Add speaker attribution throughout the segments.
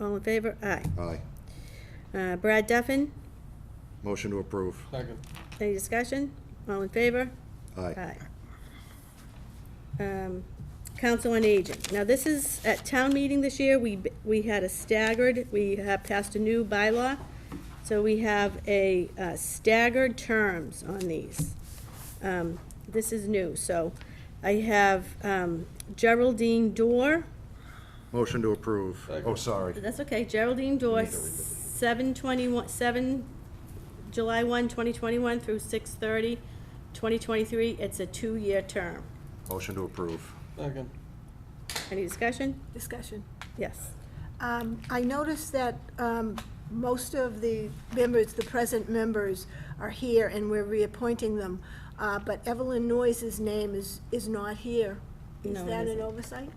Speaker 1: All in favor? Aye.
Speaker 2: Aye.
Speaker 1: Uh, Brad Duffin,
Speaker 2: Motion to approve.
Speaker 3: Second.
Speaker 1: any discussion? All in favor?
Speaker 2: Aye.
Speaker 1: Um, Council on Aging. Now, this is, at town meeting this year, we, we had a staggered, we have passed a new bylaw. So we have a uh, staggered terms on these. Um, This is new, so I have um, Geraldine Dorr,
Speaker 2: Motion to approve.
Speaker 3: Second.
Speaker 2: Oh, sorry.
Speaker 1: that's okay, Geraldine Dorr,
Speaker 2: Neither we believe.
Speaker 1: seven twenty-one, seven, July one, twenty twenty-one through six thirty, twenty twenty-three, it's a two-year term.
Speaker 2: Motion to approve.
Speaker 3: Second.
Speaker 1: Any discussion?
Speaker 4: Discussion.
Speaker 1: Yes.
Speaker 4: Um, I noticed that um, most of the members, the present members, are here, and we're reappointing them, Uh, but Evelyn Noyes' name is, is not here. Is
Speaker 1: No, it
Speaker 4: that an
Speaker 1: isn't.
Speaker 4: oversight?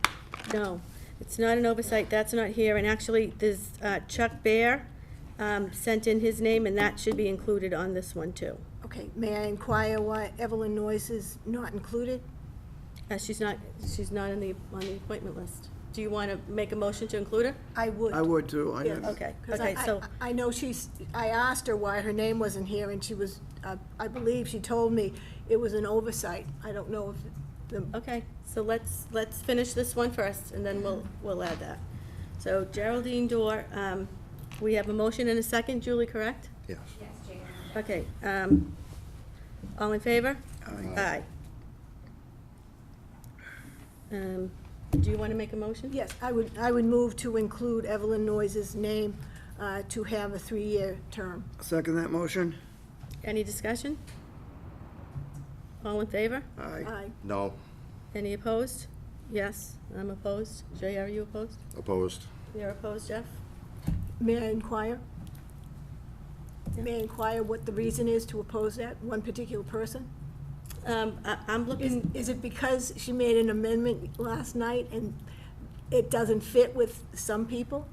Speaker 1: No, it's not an oversight, that's not here, and actually, there's uh, Chuck Bear um, sent in his name, and that should be included on this one, too.
Speaker 4: Okay, may I inquire why Evelyn Noyes is not included?
Speaker 1: Uh, She's not, she's not on the, on the appointment list. Do you want to make a motion to include her?
Speaker 4: I would.
Speaker 5: I would too. I
Speaker 4: Yes.
Speaker 5: had-
Speaker 1: Okay,
Speaker 4: 'Cause I-
Speaker 1: okay, so,
Speaker 4: I I know she's, I asked her why her name wasn't here, and she was, uh, I believe she told me it was an oversight. I don't know if the
Speaker 1: okay, so let's, let's finish this one first, and then we'll, we'll add that. So Geraldine Dorr, um, we have a motion and a second, Julie, correct?
Speaker 2: Yes.
Speaker 1: Okay, um, all in favor?
Speaker 2: Aye.
Speaker 1: Um, do you want to make a motion?
Speaker 4: Yes, I would, I would move to include Evelyn Noyes' name uh, to have a three-year term.
Speaker 5: Second that motion?
Speaker 1: Any discussion? All in favor?
Speaker 5: Aye.
Speaker 4: Aye.
Speaker 2: No.
Speaker 1: Any opposed? Yes, I'm opposed. Jay, are you opposed?
Speaker 2: Opposed.
Speaker 1: You're opposed, Jeff?
Speaker 4: May I inquire? May I inquire what the reason is to oppose that, one particular person?
Speaker 1: Um, I, I'm
Speaker 4: Is,
Speaker 1: looking,
Speaker 4: is it because she made an amendment last night and it doesn't fit with some people?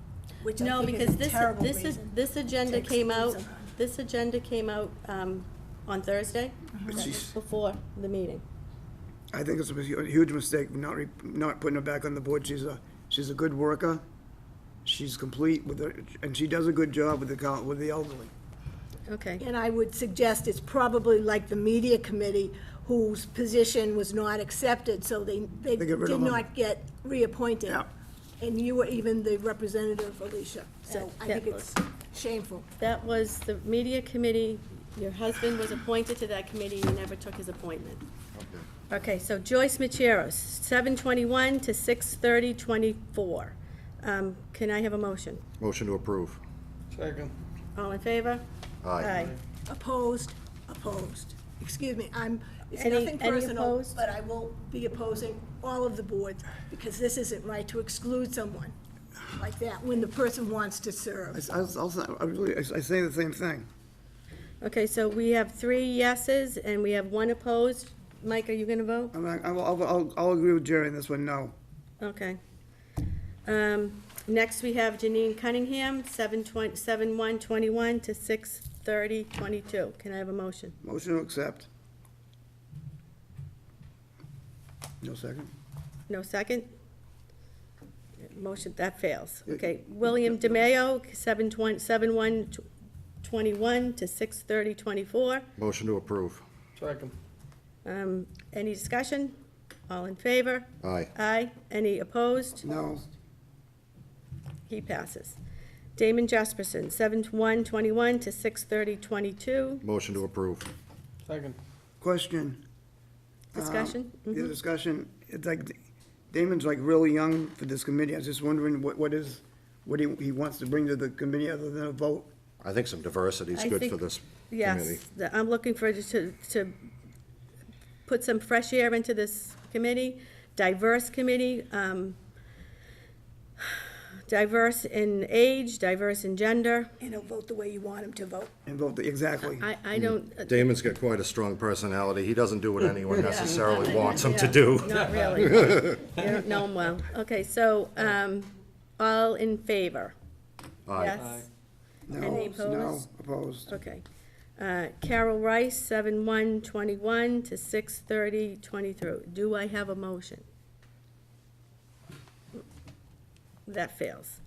Speaker 4: Which I
Speaker 1: no,
Speaker 4: think is
Speaker 1: because
Speaker 4: a
Speaker 1: this,
Speaker 4: terrible
Speaker 1: this is,
Speaker 4: reason.
Speaker 1: this agenda
Speaker 4: to
Speaker 1: came out,
Speaker 4: exclude someone.
Speaker 1: this agenda came out, um, on Thursday. That was
Speaker 5: She's-
Speaker 1: Before the meeting.
Speaker 5: I think it's a hu- huge mistake not, re- not putting her back on the board. She's a, she's a good worker. She's complete with her, and she does a good job with the, col- with the elderly.
Speaker 1: Okay,
Speaker 4: And I would suggest it's probably like the media committee whose position was not accepted, so they, they
Speaker 5: They get rid
Speaker 4: did
Speaker 5: of them.
Speaker 4: not get reappointed.
Speaker 5: Yeah.
Speaker 4: And you were even the representative, Alicia, so I
Speaker 1: Yeah.
Speaker 4: think it's shameful.
Speaker 1: that was the media committee. Your husband was appointed to that committee. You never took his appointment. Okay, so Joyce Macheros, seven twenty-one to six thirty twenty-four. Um, can I have a motion?
Speaker 2: Motion to approve.
Speaker 3: Second.
Speaker 1: All in favor?
Speaker 2: Aye.
Speaker 4: Opposed, opposed. Excuse me, I'm, it's
Speaker 1: Any-
Speaker 4: nothing
Speaker 1: any
Speaker 4: personal,
Speaker 1: opposed?
Speaker 4: but I will be opposing all of the boards, because this isn't right to exclude someone like that when the person wants to
Speaker 5: I,
Speaker 4: serve.
Speaker 5: s- I s- I'll say- I really, I s- I say the same thing.
Speaker 1: Okay, so we have three yeses and we have one opposed. Mike, are you gonna vote?
Speaker 5: I'm not- I'll, I'll- I'll, I'll agree with Jerry on this one, no.
Speaker 1: Okay. Um, next we have Janine Cunningham, seven twenty, seven one twenty-one to six thirty twenty-two. Can I have a motion?
Speaker 5: Motion to accept. No second?
Speaker 1: No second? Motion, that fails. Okay, William DeMayo, seven twenty, seven one twenty-one to six thirty twenty-four.
Speaker 2: Motion to approve.
Speaker 3: Second.
Speaker 1: Um, any discussion? All in favor?
Speaker 2: Aye.
Speaker 1: Aye. Any opposed?
Speaker 5: No.
Speaker 1: He passes. Damon Jesperson, seven one twenty-one to six thirty twenty-two.
Speaker 2: Motion to approve.
Speaker 3: Second.
Speaker 5: Question?
Speaker 1: Discussion? Mm-hmm.
Speaker 5: The discussion, it's like, Damon's like really young for this committee. I was just wondering what, what is, what he, he wants to bring to the committee other than a vote?
Speaker 2: I think some diversity is
Speaker 1: I
Speaker 2: good for
Speaker 1: think-
Speaker 2: this committee.
Speaker 1: Yes, the- I'm looking for, to, to put some fresh air into this committee, diverse committee, um, diverse in age, diverse in gender.
Speaker 4: You know, vote the way you want them to vote.
Speaker 5: And vote, exactly.
Speaker 1: I,
Speaker 2: Mm-hmm.
Speaker 1: I don't, uh,
Speaker 2: Damon's got quite a strong personality. He doesn't do what anyone necessarily wants him to do.
Speaker 1: not really. You don't know him well. Okay, so, um, all in favor?
Speaker 2: Aye.
Speaker 1: Yes?
Speaker 5: No,
Speaker 1: Any
Speaker 5: no,
Speaker 1: opposed?
Speaker 5: opposed.
Speaker 1: Okay. Uh, Carol Rice, seven one twenty-one to six thirty twenty-three. Do I have a motion? That fails.